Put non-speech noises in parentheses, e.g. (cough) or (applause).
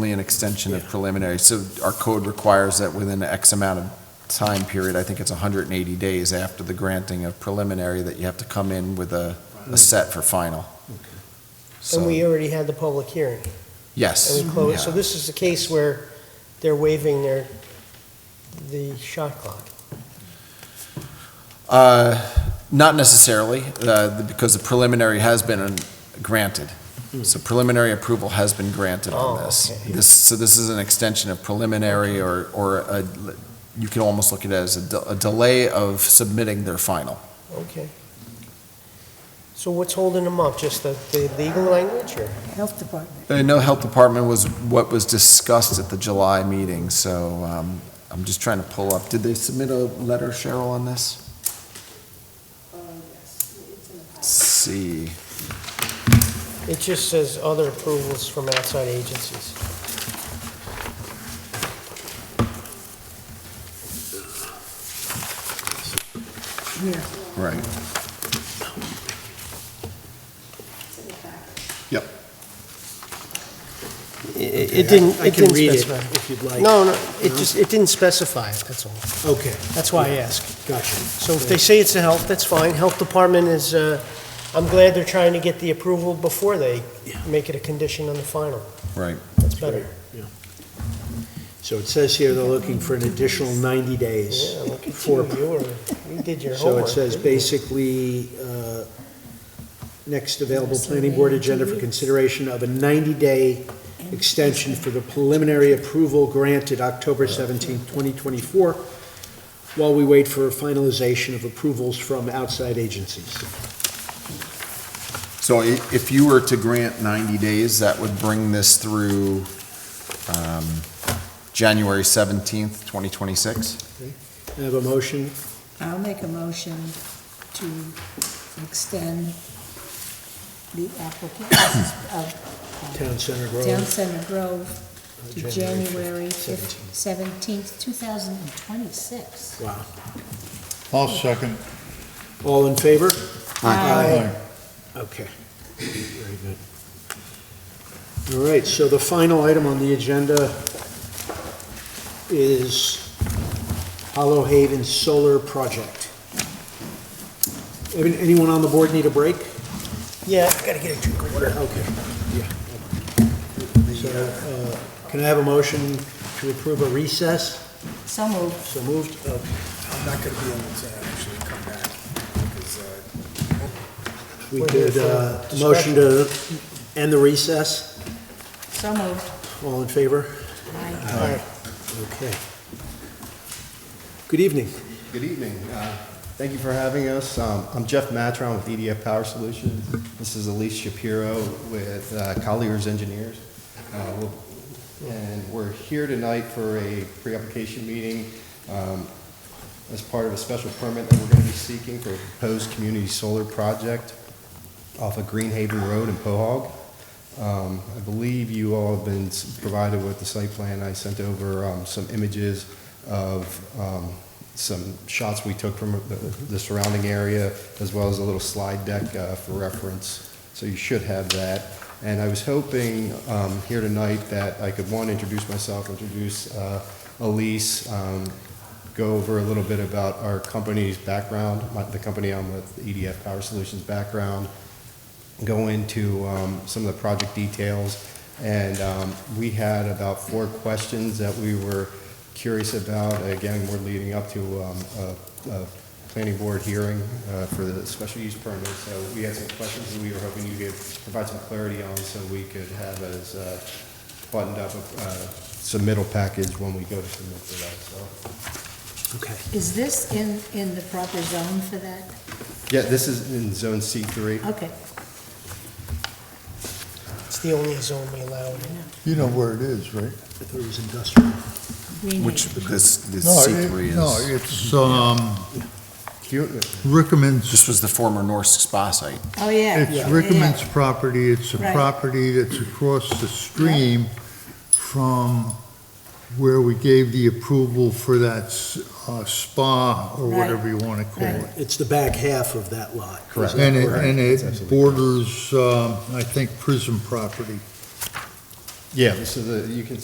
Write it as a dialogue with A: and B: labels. A: Only an extension of preliminary, so our code requires that within X amount of time period, I think it's 180 days after the granting of preliminary, that you have to come in with a, a set for final.
B: And we
A: So,
B: already had the public hearing,
A: yes.
B: and we closed, so
A: yeah.
B: this is the case where they're waiving their, the shot clock.
A: Uh, Not necessarily, uh, the- because the preliminary has been um, granted. So preliminary approval has been granted on
B: Hmm. Oh,
A: this.
B: okay.
A: This, so this is an extension of preliminary or, or a- you can almost look at it as a de- a delay of submitting their final.
B: Okay. So what's holding them up? Just the, the legal language, or?
C: Health Department.
A: I know Uh, Health Department was what was discussed at the July meeting, so um, I'm just trying to pull up. Did they submit a letter, Cheryl, on this? Let's See,
B: It just says other approvals from outside agencies.
C: Yeah,
A: right. Yep.
B: It it didn't,
D: I
B: it
D: can
B: didn't
D: read it
B: specify.
D: if you'd like.
B: No, no, it just, it didn't specify it, that's all.
D: Okay,
B: That's why I asked.
D: gotcha.
B: So if they say it's a health, that's fine. Health Department is, uh, I'm glad they're trying to get the approval before they
D: Yeah.
B: make it a condition on the final.
A: Right.
B: That's better.
D: So it says here they're looking for an additional 90 days.
B: Yeah, look at
D: for-
B: you, you were, you did your
D: So
B: homework.
D: it says
B: didn't you?
D: basically, uh, next available planning board agenda for consideration of a 90-day extension for the preliminary approval granted October 17, 2024, while we wait for finalization of approvals from outside agencies.
A: So i- if you were to grant 90 days, that would bring this through um, January 17th, 2026?
D: I have a motion.
C: I'll make a motion to extend the (coughs) application of
D: Town Center
C: Town
D: Grove.
C: Center Grove to
D: January
C: January
D: 17th.
C: seventeenth, two thousand and twenty-six.
D: Wow.
E: I'll second.
D: All in favor?
C: Aye.
D: Okay, very good. All right, so the final item on the agenda is Hollow Haven Solar Project. Any- Anyone on the board need a break?
B: Yeah, I gotta get a drink of water.
D: Okay, yeah. So, uh, can I have a motion to approve a recess?
C: So moved.
D: So moved. Okay,
F: Uh, I'm not gonna be able to actually come back, because, uh,
D: We
B: We're here
D: could,
B: for
D: uh,
B: discussion.
D: motion to end the recess.
C: So moved.
D: All in favor?
C: Aye.
B: All right.
D: Okay. Good evening.
G: Good evening. Uh, Thank you for having us. Um, I'm Jeff Matron with EDF Power Solutions. This is Elise Shapiro with uh, Colliers Engineers. Uh, we'll- And we're here tonight for a pre-application meeting um, as part of a special permit that we're going to be seeking for a proposed community solar project off of Greenhaven Road in Pohog. Um, I believe you all have been s- provided with the site plan. I sent over um, some images of um, some shots we took from the- the surrounding area, as well as a little slide deck uh, for reference. So you should have that. And I was hoping um, here tonight that I could, one, introduce myself, introduce uh, Elise, um, go over a little bit about our company's background, my- the company I'm with, EDF Power Solutions background, go into um, some of the project details. And um, we had about four questions that we were curious about. Again, we're leading up to um, a a planning board hearing uh, for the special use permit. So we had some questions that we were hoping you could provide some clarity on so we could have as uh, buttoned up a submittal package when we go to submit for that, so.
D: Okay.
C: Is this in, in the proper zone for that?
G: Yeah, this is in zone C3.
C: Okay.
B: It's the only zone we allow. in.
E: You know where it is, right?
D: I thought it was industrial.
C: Green
A: Which
C: Acres.
A: this, this
E: No,
A: C3
E: it-
A: is.
E: No, it's, um,
G: Q-
E: Rickerman's,
A: This was the former Norse spa site.
C: Oh, yeah.
E: it's
C: Yeah.
E: Rickerman's property. It's a
C: Right.
E: property that's across the stream from where we gave the approval for that s- uh, spa or
C: Right.
E: whatever you want to call
C: Right.
E: it.
D: It's the back half of that lot.
G: Correct.
E: And it,
G: Correct.
E: and
G: That's
E: it
G: absolutely correct.
E: borders, um, I think, prison property. Yeah, this is, a- you can